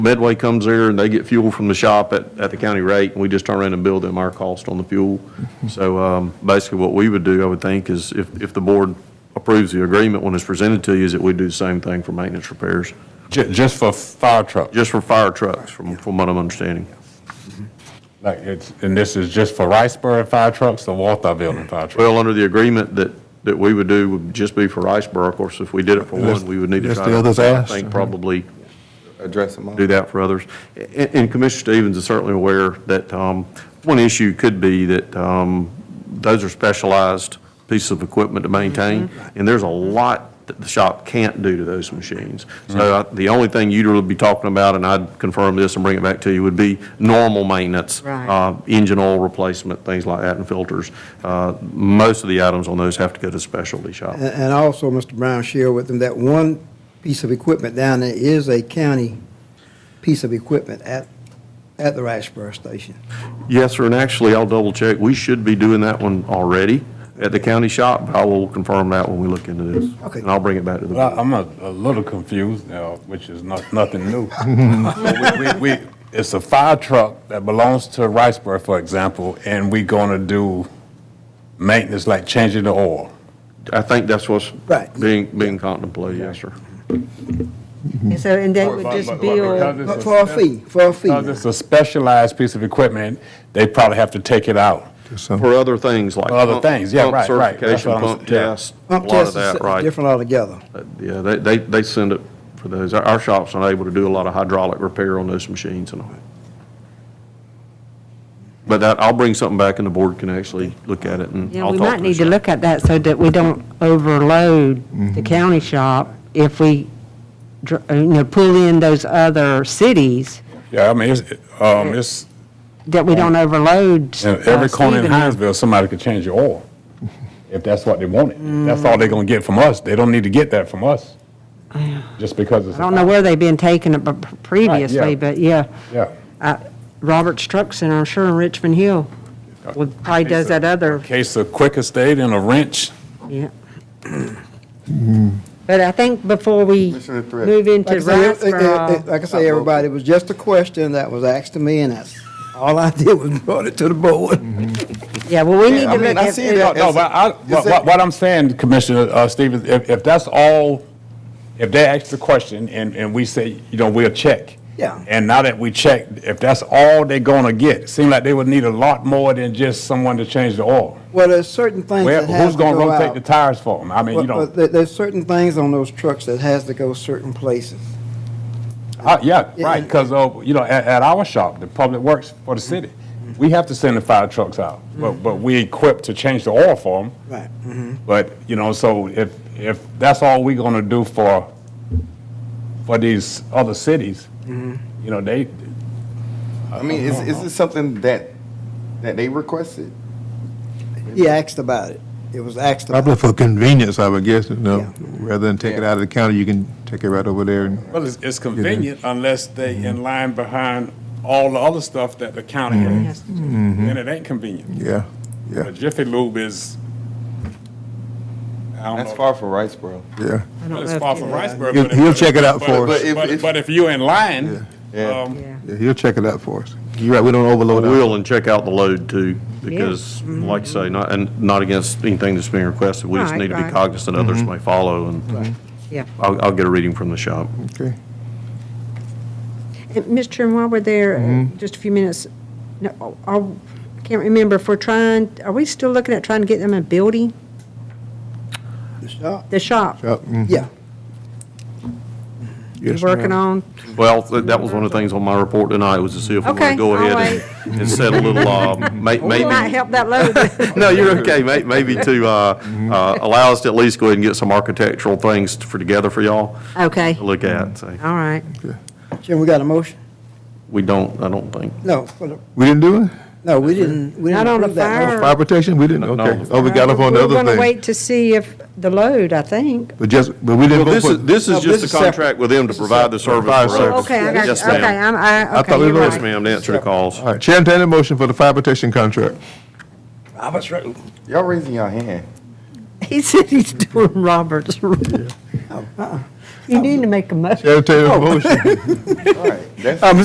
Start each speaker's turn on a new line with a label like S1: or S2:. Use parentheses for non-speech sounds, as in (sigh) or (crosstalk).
S1: Medway comes there and they get fuel from the shop at, at the county rate, and we just turn around and bill them our cost on the fuel. So, um, basically what we would do, I would think, is if, if the board approves the agreement when it's presented to you, is that we do the same thing for maintenance repairs,
S2: Ju- just for fire trucks?
S1: just for fire trucks, from, from what I'm understanding.
S2: Like, it's, and this is just for Riceburg fire trucks or Walthamville fire trucks?
S1: Well, under the agreement that, that we would do would just be for Riceboro. Of course, if we did it for one, we would need to
S3: Yes,
S1: try
S3: the
S1: to,
S3: others
S1: I
S3: asked.
S1: think, probably
S4: address them all.
S1: do that for others. And and Commissioner Stevens is certainly aware that um, one issue could be that um, those are specialized pieces of equipment to maintain, and there's a lot that the shop can't do to those machines. So I- the only thing you'd really be talking about, and I'd confirm this and bring it back to you, would be normal maintenance.
S5: Right.
S1: uh, Engine oil replacement, things like that, and filters. Uh, Most of the items on those have to go to specialty shop.
S6: And, and also, Mr. Brown, share with them that one piece of equipment down there is a county piece of equipment at, at the Riceboro Station.
S1: Yes, sir, and actually, I'll double check. We should be doing that one already at the county shop. I will confirm that when we look into this.
S6: Okay.
S1: And I'll bring it back to the
S2: Well,
S1: board.
S2: I'm a, a little confused, you know, which is not, nothing new. (laughs) But we- we- we- It's a fire truck that belongs to Riceburg, for example, and we gonna do maintenance, like changing the oil.
S1: I think that's what's
S6: Right.
S1: being, being contemplated, yes, sir.
S5: And so, and they would just bill,
S2: Because
S6: But
S2: it's
S6: For a fee, for a fee.
S2: Because
S6: now.
S2: it's a specialized piece of equipment, they probably have to take it out.
S1: For other things like.
S2: For other
S1: pump-
S2: things, yeah,
S1: pump
S2: right, right. That's
S1: Certification,
S2: what I'm-
S1: pump
S2: yeah.
S1: test, a
S6: Pump
S1: lot of
S6: test is
S1: that, right.
S6: different altogether.
S1: Uh, Yeah, they, they, they send it for those. Our, our shop's unable to do a lot of hydraulic repair on those machines and all. But that, I'll bring something back and the board can actually look at it and
S5: yeah,
S1: I'll
S5: we
S1: talk
S5: might
S1: the
S5: need to
S1: shop.
S5: look at that so that we don't overload the county shop if we, dr- uh, you know, pull in those other cities,
S2: Yeah, I mean, it's, um, it's,
S5: that we don't overload.
S2: in every
S5: uh,
S2: corner in
S5: Stephen.
S2: Hinesville, somebody could change your oil, if that's what they wanted. If That's all they're gonna get from us. They don't need to get that from us, just because it's.
S5: I don't know where they've been taking it b- p- previously,
S2: yeah.
S5: but yeah,
S2: Yeah.
S5: Robert's Truck Center, I'm sure in Richmond Hill, well, probably does that other,
S2: Case of quick estate and a wrench.
S5: yeah. But I think before we
S4: Commissioner Thread.
S5: move into
S6: Like I say, it- it- it-
S5: Riceboro,
S6: Like I say, everybody, it was just a question that was asked to me, and that's, all I did was brought it to the board.
S5: yeah, well, we need
S4: I
S5: to
S4: mean,
S5: look
S4: I
S5: at.
S4: see that
S2: No, but I, what, what- what I'm saying, Commissioner, uh, Stevens, if, if that's all, if they ask the question and, and we say, you know, we'll check.
S6: Yeah.
S2: And now that we check, if that's all they're gonna get, seem like they would need a lot more than just someone to change the oil.
S6: Well, there's certain things
S2: Well,
S6: that have
S2: who's
S6: to go out.
S2: gonna rotate the tires for them? I mean, you
S6: Well, well,
S2: know,
S6: there- There's certain things on those trucks that has to go certain places.
S2: uh, yeah,
S6: Yeah,
S2: right,
S6: and-
S2: because, uh, you know, at, at our shop, the public works for the city, we have to send the fire trucks out, but, but we equipped to change the oil for them.
S6: Right.
S4: Mm-hmm.
S2: But, you know, so if, if that's all we gonna do for, for these other cities, you
S4: Mm-hmm.
S2: know, they,
S4: I mean, is, is this something that, that they requested?
S6: He asked about it. It was asked about.
S3: Probably for convenience, I would guess, you
S6: Yeah.
S3: know, rather than take it out of the county, you can take it right over there and.
S2: well, it's, it's convenient unless they in line behind all the other stuff that the county has. Then it ain't convenient.
S3: Yeah, yeah,
S2: But Jiffy Lube is, I don't
S4: That's
S2: know,
S4: far from Riceboro.
S3: yeah.
S5: I don't
S2: it's
S5: know if
S2: far
S5: you-
S2: from Riceboro.
S3: He'll-
S2: but if-
S3: he'll check it out
S2: but-
S3: for us.
S2: but if-
S4: But if-
S2: But if you in line,
S4: Yeah.
S2: um,
S5: Yeah.
S3: Yeah, he'll check it out for us. You're right, we don't overload our
S1: Will and check out the load too, because like you say, not, and not against anything that's being requested. We just
S5: Mm-hmm. Right,
S1: need to be
S5: right.
S1: cognizant others may follow and
S5: Yeah.
S1: I'll, I'll get a reading from the shop.
S3: Okay.
S5: And, Mr. Chairman, while we're there, uh, just a few minutes, no, are- I can't remember if we're trying, are we still looking at trying to get them a building?
S6: the shop.
S5: The shop
S3: Yep, mm,
S6: Yeah.
S5: you're
S3: yes,
S5: working on?
S3: ma'am.
S1: Well, th- that was one of the things on my report tonight was to see if we want
S5: Okay, Oh,
S1: to go
S5: all
S1: ahead and, and set a little, uh,
S5: (laughs)
S1: may,
S5: We might
S1: maybe.
S5: help that load.
S1: (laughs) No, you're okay. May, maybe to, uh, uh, allow us to at least go ahead and get some architectural things for, together for y'all
S5: Okay,
S1: to look at. So
S5: all right.
S6: Jim, we got a motion?
S1: we don't, I don't think.
S6: No, for the-
S3: We didn't do it?
S6: no, we didn't, we
S5: Not
S6: didn't
S5: on the
S6: approve that
S5: fire.
S6: motion.
S3: Fire protection, we didn't,
S1: No.
S3: okay. Oh, we got up on the
S5: Uh, We're going to
S3: other thing.
S5: wait to see if the load, I think.
S3: But just, but we
S1: Well,
S3: didn't vote
S1: this
S3: for.
S1: is, this
S6: No,
S1: is just
S6: this
S1: a
S6: is separate.
S1: contract with them to provide the service
S3: Fire
S1: for
S3: service.
S1: us.
S5: Oh, Okay, I got,
S1: Yes,
S5: you.
S1: ma'am.
S5: okay, I'm, I,
S3: thought
S5: okay,
S3: we
S5: you're
S3: voted.
S1: Yes,
S5: right. (laughs)
S1: ma'am, to answer the calls.
S3: All right, Chair, entertain a motion for the fire protection contract.
S6: Robert's Rules.
S4: Y'all raising y'all hand.
S6: Uh-uh.
S5: He said he's doing Robert's.
S7: You need to make a motion.
S5: Entertain a motion. (laughs)
S3: All right, that's-